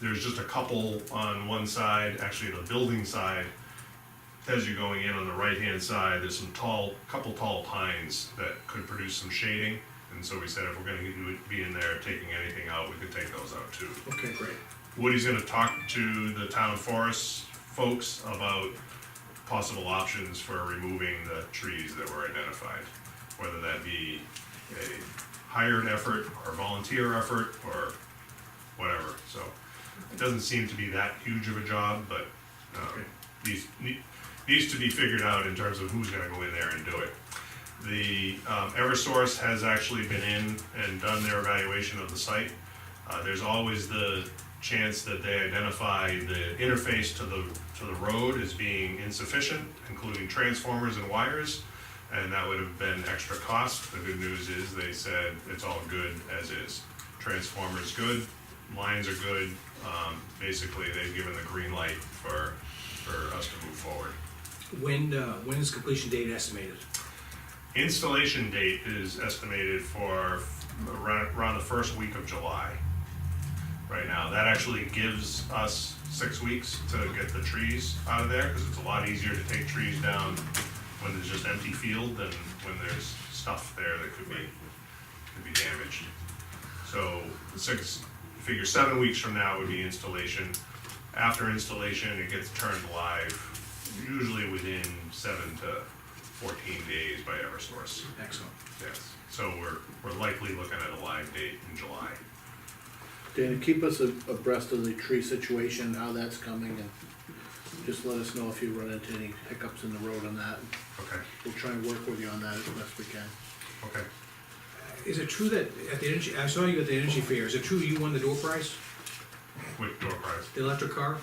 there's just a couple on one side, actually the building side. As you're going in on the right-hand side, there's some tall, couple tall pines that could produce some shading. And so we said if we're gonna do it- be in there taking anything out, we could take those out too. Okay, great. Woody's gonna talk to the town forest folks about possible options for removing the trees that were identified. Whether that be a hired effort or volunteer effort or whatever, so. It doesn't seem to be that huge of a job, but, um, needs, ne- needs to be figured out in terms of who's gonna go in there and do it. The, um, Eversource has actually been in and done their evaluation of the site. Uh, there's always the chance that they identify the interface to the, to the road as being insufficient, including transformers and wires, and that would have been extra cost. The good news is they said it's all good as is. Transformers good, lines are good, um, basically they've given the green light for, for us to move forward. When, uh, when is completion date estimated? Installation date is estimated for around, around the first week of July. Right now, that actually gives us six weeks to get the trees out of there, because it's a lot easier to take trees down when there's just empty field than when there's stuff there that could be, could be damaged. So six, figure seven weeks from now would be installation. After installation, it gets turned live, usually within seven to fourteen days by Eversource. Excellent. Yes, so we're, we're likely looking at a live date in July. Dana, keep us a- abreast of the tree situation, how that's coming, and just let us know if you run into any hiccups in the road on that. Okay, We'll try and work with you on that as best we can. okay. Is it true that at the energy, I saw you at the energy fair, is it true you won the door prize, With door prize. the electric car?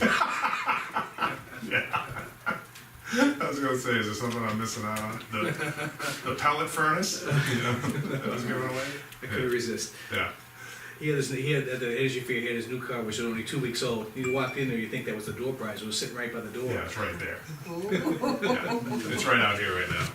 I was gonna say, is there something I'm missing out on? The, the pellet furnace? You know, that was given away? I couldn't resist. Yeah, He had this, he had, at the energy fair, he had his new car, which was only two weeks old, you walked in there, you think that was the door prize, it was sitting right by the door. yeah, it's right there. Yeah, It's right out here right now,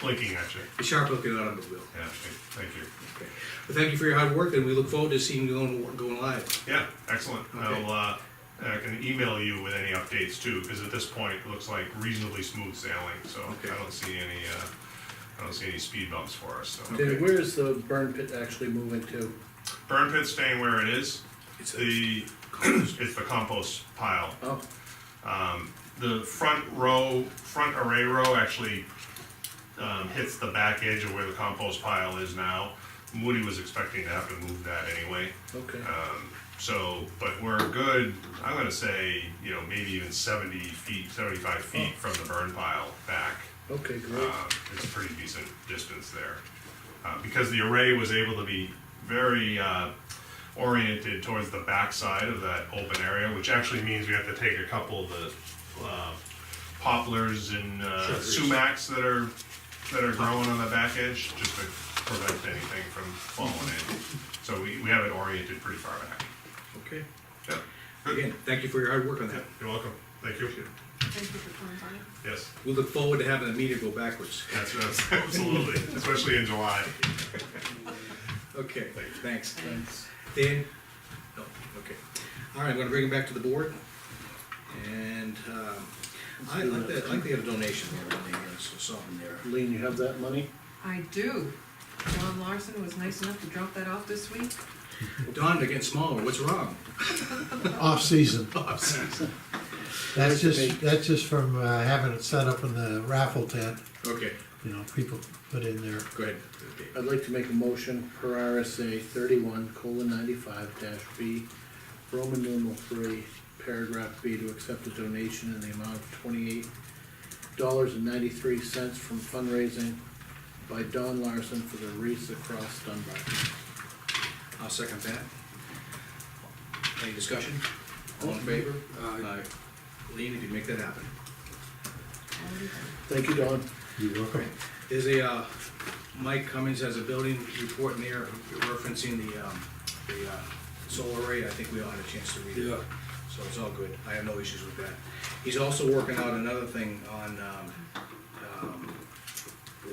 blinking at you. A sharp looking automobile. Yeah, thank thank you. Okay. Well, thank you for your hard work, and we look forward to seeing you going, going live. Yeah, excellent. Okay. I'll, uh, I can email you with any updates too, because at this point, it looks like reasonably smooth sailing, so Okay. I don't see any, uh, I don't see any speed bumps for us, so. Dana, where is the burn pit actually moving to? Burn pit's staying where it is. It's a- The, it's the compost pile. Oh, Um, the front row, front array row actually um, hits the back edge of where the compost pile is now. Moody was expecting to have to move that anyway. okay, Um, so, but we're good, I'm gonna say, you know, maybe even seventy feet, seventy-five feet from the burn pile back. okay, great. Um, it's a pretty decent distance there. Uh, because the array was able to be very, uh, oriented towards the backside of that open area, which actually means we have to take a couple of the, uh, poplars and, uh, Sure. sumacs that are, that are growing on the back edge, just to prevent anything from falling in. So we, we have it oriented pretty far back. Okay. Yeah. Again, thank you for your hard work on that. You're welcome. Thank you. Thank you for coming by. Yes, We look forward to having the meter go backwards. that's, that's absolutely, especially in July. Okay, thanks. Thanks. Dan? No, okay. All right, I'm gonna bring it back to the board. And, um, I like that, I like they have a donation there, on the, uh, so something there. Lean, you have that money? I do. John Larson was nice enough to drop that off this week. Don, they're getting smaller, what's wrong? Oh, Off-season. Where's the That's bait? just, that's just from uh, having it set up in the raffle tent, Okay, you know, people put in their go ahead. Okay. I'd like to make a motion per RSA thirty-one colon ninety-five dash B, Roman numeral three, paragraph B, to accept a donation in the amount of twenty-eight dollars and ninety-three cents from fundraising by Don Larson for the Wreaths Across Dunbar. I'll second that. Any discussion? All in favor? Aye. Lean, if you make that happen. Already done. Thank you, Don. You're welcome. There's a, uh, Mike Cummings has a building report in there referencing the, um, the, uh, solar array, I think we all had a chance to read it. So it's all good, I have no issues with that. He's also working out another thing on, um, um,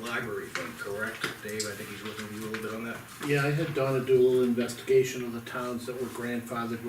library thing, correct? Dave, I think he's working with you a little bit on that? Yeah, I had Donna do a little investigation of the towns that were grandfathered